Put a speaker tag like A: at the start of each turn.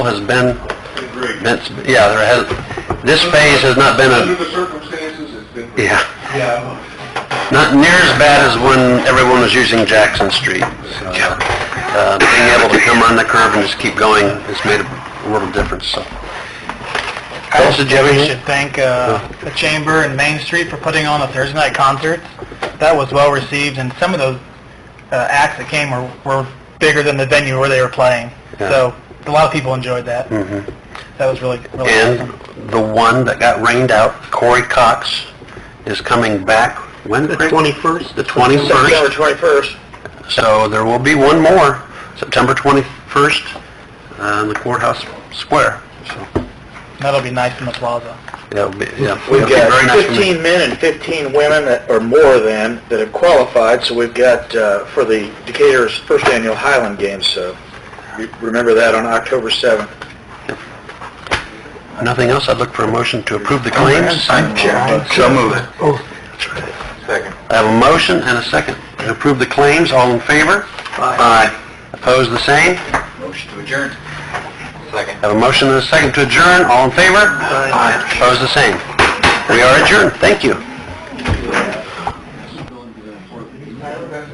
A: has been,
B: Agreed.
A: that's, yeah, there has, this phase has not been
B: Under
A: a,
B: the circumstances, it's been...
A: yeah,
B: Yeah.
A: not near as bad as when everyone was using Jackson Street. So, uh, being able to come around the curve and just keep going has made a world of difference, so.
C: I
A: Tulsa,
C: think
A: do you have
C: we
A: anything?
C: should thank uh, the Chamber and Main Street for putting on the Thursday night concert. That was well received, and some of those uh, acts that came were, were bigger than the venue where they were playing.
A: Yeah. Mm-hmm.
C: So a lot of people enjoyed that. That was really really
A: And
C: awesome.
A: the one that got rained out, Corey Cox, is coming back when? The 21st. The 21st.
C: twenty-first.
A: So there will be one more, September 21st, uh, in the courthouse square. So
C: That'll be nice in the plaza.
A: It'll be, yeah.
D: We've
A: it'll be very
D: got
A: nice for me.
D: 15 men and 15 women that- or more than that have qualified, so we've got uh, for the Decatur's first annual Highland Games, so re- remember that on October 7th.
A: Nothing else, I'd look for a motion to approve the claims.
D: So move it. Second.
A: I have a motion and a second to approve the claims, all in favor? Aye. Opposed, the same?
D: Motion to adjourn. Second.
A: Have a motion and a second to adjourn, all in favor? Aye. Opposed, the same? We are adjourned, thank you.